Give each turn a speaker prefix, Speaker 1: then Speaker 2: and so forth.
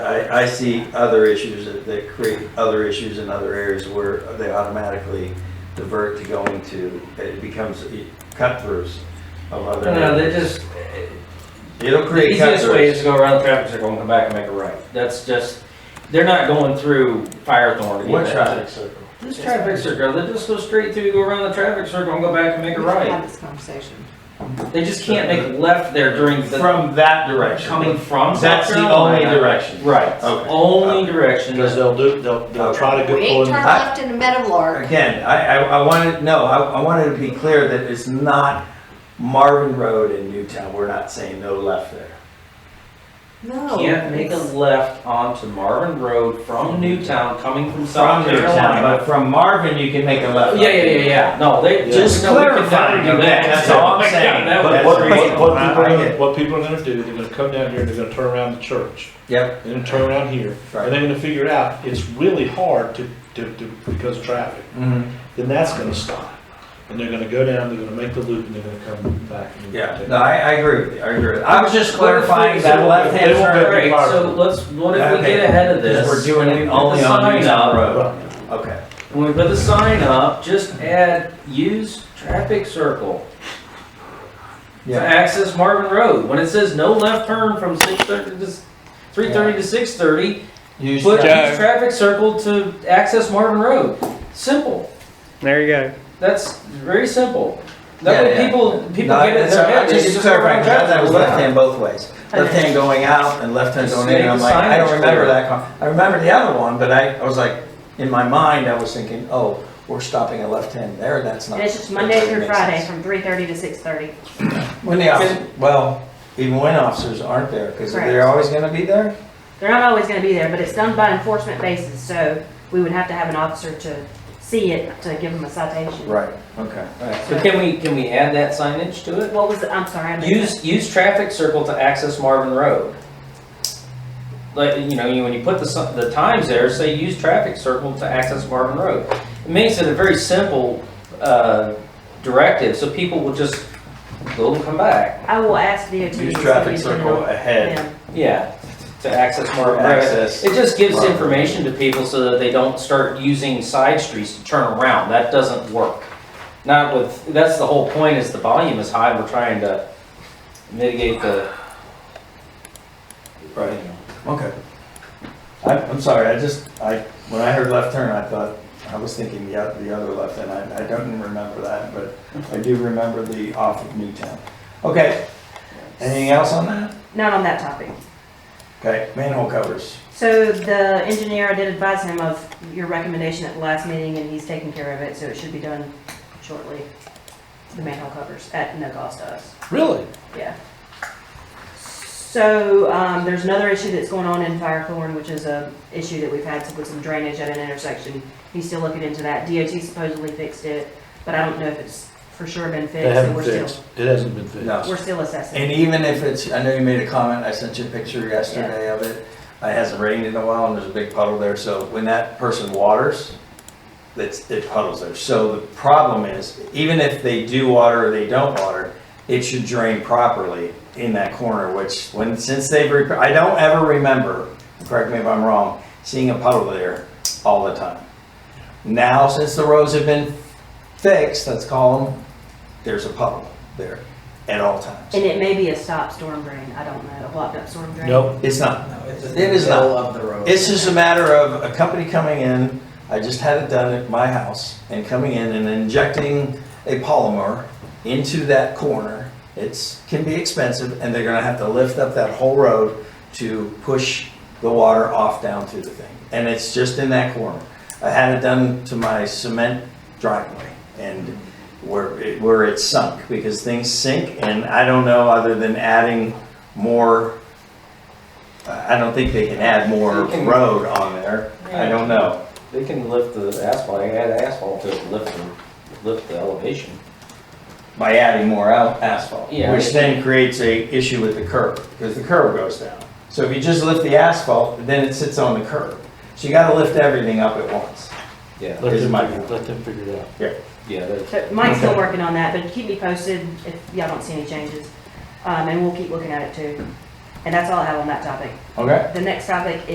Speaker 1: I, I see other issues that, that create other issues in other areas where they automatically divert to going to, it becomes cut throughs of other.
Speaker 2: No, they just,
Speaker 1: It'll
Speaker 2: the
Speaker 1: create cut
Speaker 2: easiest way is
Speaker 1: throughs.
Speaker 2: to go around the traffic circle and come back and make a right. That's just, they're not going through Firethorn to
Speaker 1: What
Speaker 2: get that.
Speaker 1: traffic circle?
Speaker 2: This traffic circle, they just go straight through, go around the traffic circle and go back and make a
Speaker 3: We should have
Speaker 2: right.
Speaker 3: this conversation.
Speaker 2: They just can't make left there during the,
Speaker 1: From that direction.
Speaker 2: coming from South
Speaker 1: That's the only
Speaker 2: Carolina.
Speaker 1: direction.
Speaker 2: Right,
Speaker 1: Okay.
Speaker 2: only direction.
Speaker 4: Because they'll do, they'll, they'll try to
Speaker 3: We
Speaker 4: get
Speaker 3: ain't
Speaker 4: one,
Speaker 3: turned left in the Meadowlark.
Speaker 1: Again, I, I, I wanted, no, I, I wanted to be clear that it's not Marvin Road in Newtown, we're not saying no left there.
Speaker 3: No.
Speaker 2: Can't make a left onto Marvin Road from Newtown, coming from
Speaker 1: From
Speaker 2: South
Speaker 1: Newtown,
Speaker 2: Carolina.
Speaker 1: but from Marvin, you can make a left.
Speaker 2: Yeah, yeah, yeah, yeah, no, they.
Speaker 1: Just
Speaker 2: no, we could never
Speaker 1: clarifying,
Speaker 2: do that.
Speaker 1: that's all I'm saying.
Speaker 2: That would-
Speaker 4: but
Speaker 1: That's
Speaker 4: what, what,
Speaker 1: reasonable.
Speaker 4: what people, are
Speaker 1: I- I
Speaker 4: gonna-
Speaker 1: get-
Speaker 4: what people are gonna do, they're gonna come down here, and they're gonna turn around the church,
Speaker 1: Yep,
Speaker 4: and then turn around here,
Speaker 1: Right.
Speaker 4: and they're gonna figure out, it's really hard to, to, to, because of traffic,
Speaker 1: mhm,
Speaker 4: then that's gonna stop. And they're gonna go down, they're gonna make the loop, and they're gonna come back. and-
Speaker 1: yeah, no, I, I agree with you, I agree with you. I was just clarifying
Speaker 2: So
Speaker 1: that left-hand
Speaker 4: they won't
Speaker 1: turn,
Speaker 4: go-
Speaker 2: Alright, so let's, what if we
Speaker 1: Okay.
Speaker 2: get ahead of this?
Speaker 1: because we're doing
Speaker 2: and we
Speaker 1: it
Speaker 2: put
Speaker 1: only
Speaker 2: the
Speaker 1: on
Speaker 2: sign
Speaker 1: Newtown
Speaker 2: up,
Speaker 1: Road.
Speaker 4: Right.
Speaker 1: Okay,
Speaker 2: When we put the sign up, just add, use traffic circle to
Speaker 1: yeah,
Speaker 2: access Marvin Road. When it says no left turn from six thirty to, three thirty to six thirty,
Speaker 1: use,
Speaker 2: put
Speaker 1: that.
Speaker 2: use traffic circle to access Marvin Road. Simple.
Speaker 5: There you go.
Speaker 2: That's very simple.
Speaker 1: Yeah,
Speaker 2: That way
Speaker 1: yeah.
Speaker 2: people, people
Speaker 1: No,
Speaker 2: get it in
Speaker 1: that's-
Speaker 2: their head,
Speaker 1: I'm
Speaker 2: they
Speaker 1: just
Speaker 2: just go around
Speaker 1: clarifying,
Speaker 2: traffic.
Speaker 1: that was
Speaker 2: circle.
Speaker 1: left-hand both ways, left-hand going out and left-hand
Speaker 2: Just
Speaker 1: going in,
Speaker 2: make
Speaker 1: I'm
Speaker 2: the
Speaker 1: like, I don't
Speaker 2: signage
Speaker 1: remember
Speaker 2: clear.
Speaker 1: that, con- I remember the other one, but I, I was like, in my mind, I was thinking, oh, we're stopping a left-hand there, that's not.
Speaker 3: And it's just Monday through
Speaker 1: that makes sense.
Speaker 3: Friday from three thirty to six thirty.
Speaker 1: When the officers, well, even when officers aren't there, because they're
Speaker 3: Correct.
Speaker 1: always gonna be there?
Speaker 3: They're not always gonna be there, but it's done by enforcement basis, so we would have to have an officer to see it, to give them a citation.
Speaker 1: Right, okay, alright.
Speaker 2: So can we, can we add that signage to it?
Speaker 3: What was, the- I'm sorry, I
Speaker 2: Use,
Speaker 3: missed
Speaker 2: use traffic circle to access Marvin Road. Like, you know, you- when you put the, si- the times there, say use traffic circle to access Marvin Road. It makes it a very simple, uh, directive, so people will just go and come back.
Speaker 3: that. I will ask DOT.
Speaker 1: Use
Speaker 3: to see
Speaker 1: traffic
Speaker 3: if they know.
Speaker 1: circle ahead.
Speaker 3: Yeah.
Speaker 2: Yeah, to access Marvin Road.
Speaker 1: Access.
Speaker 2: It just gives
Speaker 1: Marvin.
Speaker 2: information to people so that they don't start using side streets to turn around. That doesn't work. Not with, that's the whole point is the volume is high. We're trying to mitigate the.
Speaker 1: Right. Okay. I'm, I'm sorry, I just, I, when I heard left turn, I thought, I was thinking the, oth- the other left, and I, I don't even remember that, but I do remember the off of Newtown. Okay, anything else on that?
Speaker 3: Not on that topic.
Speaker 1: Okay, manhole covers.
Speaker 3: So the engineer, I did advise him of your recommendation at the last meeting, and he's taking care of it, so it should be done shortly. The manhole covers at no cost to us,
Speaker 4: Really?
Speaker 3: yeah. So, um, there's another issue that's going on in Firethorn, which is a issue that we've had with some drainage at an intersection. He's still looking into that. DOT supposedly fixed it, but I don't know if it's for sure been
Speaker 4: They
Speaker 3: fixed, so
Speaker 4: haven't
Speaker 3: we're still,
Speaker 4: fixed, it hasn't been fixed.
Speaker 1: No.
Speaker 3: we're still assessing.
Speaker 1: And even if it's, I know you made a comment, I sent you a picture yesterday of it. It hasn't rained in a while and there's a big puddle there, so when that person waters, it's, it puddles there. So the problem is, even if they do water or they don't water, it should drain properly in that corner, which when, since they've, rep- I don't ever remember, correct me if I'm wrong, seeing a puddle there all the time. Now, since the roads have been fixed, let's call them, there's a puddle there at all times.
Speaker 3: And it may be a stop storm drain, I don't know, a blocked up storm drain.
Speaker 4: Nope,
Speaker 1: It's not.
Speaker 6: It's
Speaker 1: It is not.
Speaker 6: of the road.
Speaker 1: It's just a matter of a company coming in, I just had it done at my house, and coming in and injecting a polymer into that corner. It's, can be expensive, and they're gonna have to lift up that whole road to push the water off down through the thing. And it's just in that corner. I had it done to my cement driveway and where, it- where it sunk, because things sink, and I don't know, other than adding more, I I don't think they can add more
Speaker 2: You can-
Speaker 1: road on there. I don't know.
Speaker 2: They can lift the asphalt, add asphalt to lift the, lift the elevation.
Speaker 1: By adding more al- asphalt,
Speaker 2: Yeah.
Speaker 1: which then creates a issue with the curb, because the curb goes down. So if you just lift the asphalt, then it sits on the curb. So you gotta lift everything up at once.
Speaker 2: Yeah,
Speaker 4: let
Speaker 1: Here's
Speaker 4: them,
Speaker 1: my-
Speaker 4: let them figure it out.
Speaker 2: yeah, they're-
Speaker 3: So Mike's still
Speaker 1: Okay.
Speaker 3: working on that, but keep me posted if y'all don't see any changes. Um, and we'll keep looking at it too. And that's all I have on that topic.
Speaker 1: Okay?
Speaker 3: The next topic